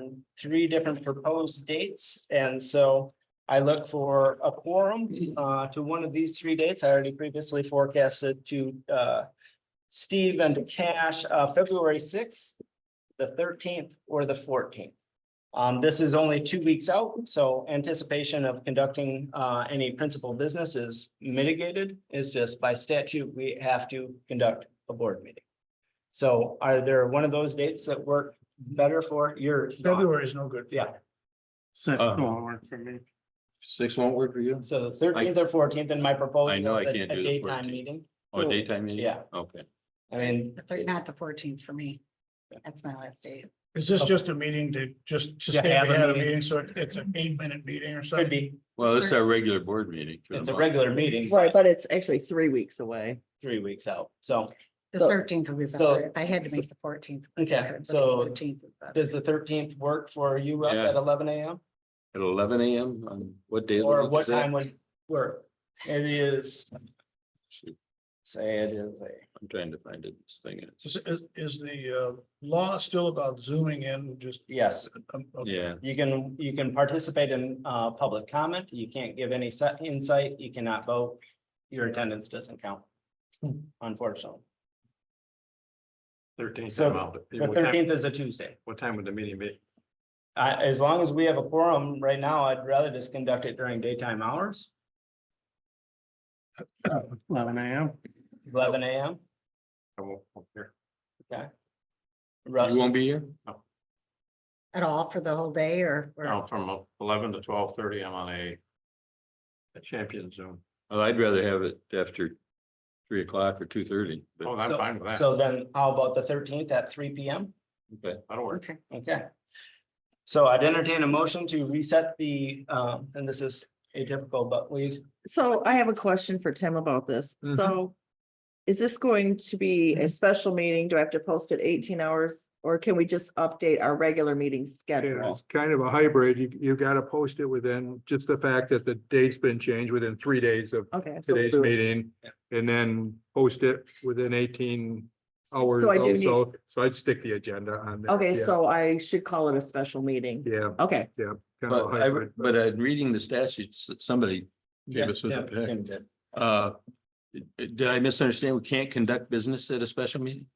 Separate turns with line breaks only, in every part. on three different proposed dates, and so I look for a quorum uh to one of these three dates. I already previously forecasted to uh Steve and to Cash, uh, February sixth, the thirteenth, or the fourteenth. Um, this is only two weeks out, so anticipation of conducting uh any principal business is mitigated. It's just by statute, we have to conduct a board meeting. So are there one of those dates that work better for your?
February is no good.
Yeah.
Six
Uh-huh.
won't work for me.
Six won't work for you?
So the thirteenth or fourteenth in my proposal.
I know I
is a-
can't
a
do the
daytime
14th.
meeting.
Or
Cool.
Oh, daytime meeting?
Yeah.
Okay.
I mean,
The thir- Not the fourteenth for me. That's my last day.
Is this just a meeting to just to
To
stay
have a
ahead of
meeting.
meeting? So it- it's an eight minute meeting or
could
something?
be,
Well, this is our regular board meeting. for the
it's a
month.
regular meeting,
Right, but it's actually three weeks away.
three weeks out. So
The
So-
thirteenth will be
so-
better. If I had to make the fourteenth.
Okay, so does the thirteenth work for you, Russ,
Yeah.
at eleven AM?
At eleven AM on what day? of the
Or
week is
what
that?
time would work? It is,
Shoot,
say it is a,
I'm trying to find it, this thing is,
Is, is- is the uh, law still about zooming in just?
yes,
um, okay.
yeah,
you can, you can participate in uh public comment. You can't give any set insight. You cannot vote. Your attendance doesn't count, Hmm. unfortunately.
Thirteenth.
So, The thirteenth is a Tuesday.
What time would the meeting be?
Uh, as long as we have a quorum right now, I'd rather just conduct it during daytime hours,
Eleven AM.
eleven AM.
I won't, won't hear.
Russ,
you won't be here?
At all for the whole day or? or-
No, Oh, from eleven to twelve thirty, I'm on a a champion Zoom.
Oh, I'd rather have it after three o'clock or two thirty,
Oh,
but,
I'm
So-
fine with that.
so then how about the thirteenth at three P M?
but
That'll work.
Okay.
Okay. So I'd entertain a motion to reset the, um, and this is atypical, but we,
So I have a question for Tim about this.
Mhm.
Mm-hmm.
So is this going to be a special meeting? Do I have to post it eighteen hours? Or can we just update our regular meeting
Yeah,
schedule?
it's kind of a hybrid. You, you've got to post it within, just the fact that the date's been changed within three days of
Okay. so-
today's meeting. And then post it within eighteen hours
So I do
also. So I'd stick the agenda on. there.
Okay,
Yeah,
so I should call it a special meeting.
Yeah.
Okay,
kind of a
but I,
hybrid.
but i reading the statutes that somebody gave us with the pack. Uh, did I misunderstand? We can't conduct business at a special meeting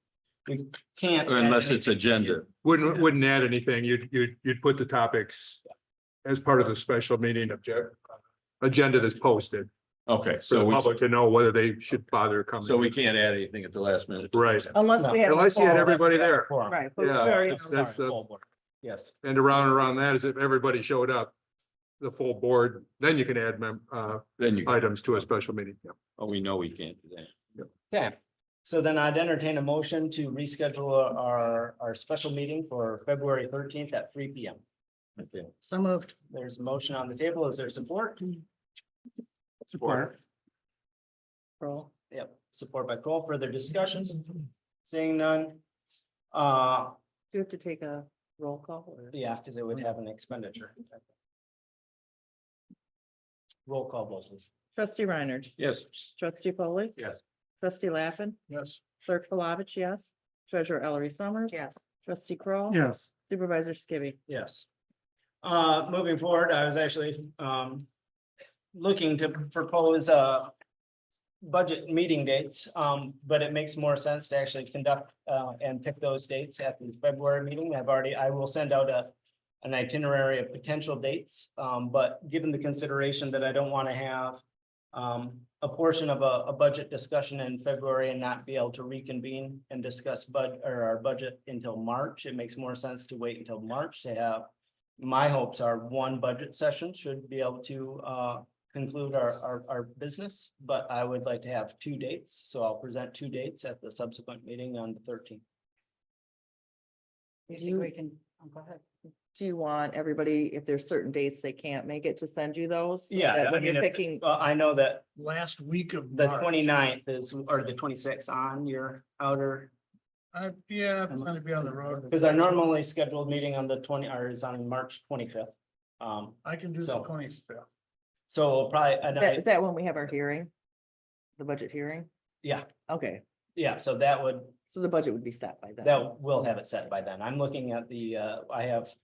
can't.
or unless it's agenda?
Wouldn't, wouldn't add anything. You'd, you'd, you'd put the topics as part of the special meeting object, agenda that's posted
Okay,
for
so
the
we,
public to know whether they should bother coming.
so we can't add anything at the last minute.
Right.
unless we have. a
Unless you had
quorum.
everybody there.
Quorum.
Right. but we
Yeah,
already
that's-
know that.
that's
Sorry,
the-
full board. Yes,
And around and around that is if everybody showed up, the full board, then you can add mem- uh,
Then you,
items to a special meeting. Yeah.
oh, we know we can't do that.
okay. So then I'd entertain a motion to reschedule our, our special meeting for February thirteenth at three P M.
Okay.
So moved.
There's a motion on the table. Is there support?
Support.
Roll.
Yep, support by Cole. Further discussions? Seeing none. Uh,
Do you have to take a roll call? or-
Yeah, because it would have an expenditure. Roll call, vote, please.
Trustee Reiner,
Yes.
trustee polley
Yes.
Trustee Lappin,
Yes.
clerk Palovich, yes. Treasurer Ellery Summers.
Yes.
Trustee Kroll,
Yes.
Supervisor Skibby.
Yes. Uh, moving forward, I was actually, um, looking to propose, uh, budget meeting dates, um, but it makes more sense to actually conduct, uh, and pick those dates at the February meeting. I've already, I will send out a, an itinerary of potential dates, um, but given the consideration that I don't want to have, um, a portion of a, a budget discussion in February and not be able to reconvene and discuss bud, or our budget until March. It makes more sense to wait until March to have, my hopes are one budget session should be able to, uh, conclude our, our, our business, but I would like to have two dates, so I'll present two dates at the subsequent meeting on the thirteenth.
You think we can, oh, go ahead.
Do you want everybody, if there's certain dates they can't make it, to send you those? so
Yeah,
that
I
When
mean,
you're
if-
picking,
Well, I know that
Last week of.
the
March.
29th is, or the twenty-sixth on your outer,
I, yeah, I'm gonna be on the road.
because our normally scheduled meeting on the twenty, or is on March twenty-fifth. Um,
I can do the
So-
twenty fifth.
so we'll probably, and
that-
I,
is that when we have our hearing? The budget hearing?
Yeah.
Okay,
yeah, so that would,
so the budget would be set by then.
that will have it set by then. I'm looking at the, uh, I have